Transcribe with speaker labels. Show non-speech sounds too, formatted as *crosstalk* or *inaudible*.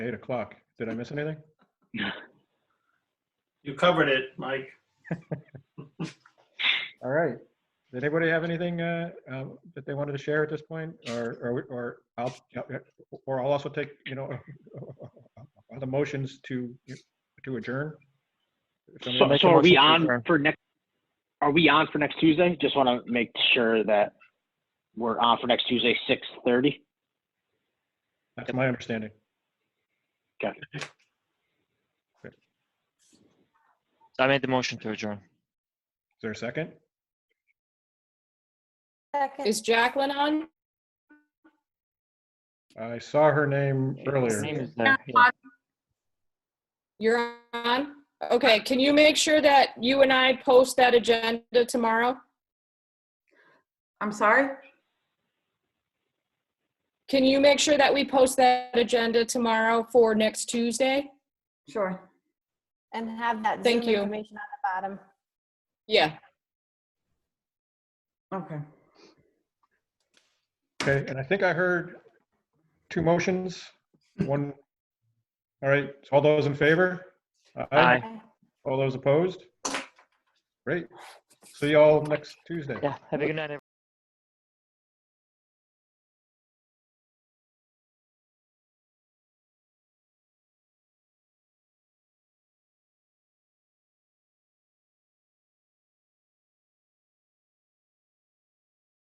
Speaker 1: Eight o'clock. Did I miss anything?
Speaker 2: You covered it, Mike.
Speaker 1: All right. Did anybody have anything uh, um, that they wanted to share at this point? Or, or, we- or I'll, or I'll also take, you know, *laughs* the motions to, to adjourn? If somebody
Speaker 3: So,
Speaker 1: make a
Speaker 3: so are we
Speaker 1: motion to
Speaker 3: on
Speaker 1: adjourn.
Speaker 3: for next, are we on for next Tuesday? Just want to make sure that we're on for next Tuesday, six thirty?
Speaker 1: That's my understanding.
Speaker 4: So I made the motion to adjourn.
Speaker 1: Is there a second?
Speaker 5: Second.
Speaker 6: Is Jacqueline on?
Speaker 1: I saw her name
Speaker 4: Name
Speaker 1: earlier.
Speaker 4: is there, uh, yeah.
Speaker 6: You're on? Okay, can you make sure that you and I post that agenda tomorrow?
Speaker 5: I'm sorry?
Speaker 6: Can you make sure that we post that agenda tomorrow for next Tuesday?
Speaker 5: Sure.
Speaker 7: And have that Zoom
Speaker 6: Thank you.
Speaker 7: information on the bottom.
Speaker 6: Yeah,
Speaker 5: Okay.
Speaker 1: Okay, and I think I heard two motions, one. All right, so all those in favor?
Speaker 4: Aye.
Speaker 1: All those opposed? Great. See y'all next Tuesday.
Speaker 4: Yeah, have a good night, everyone.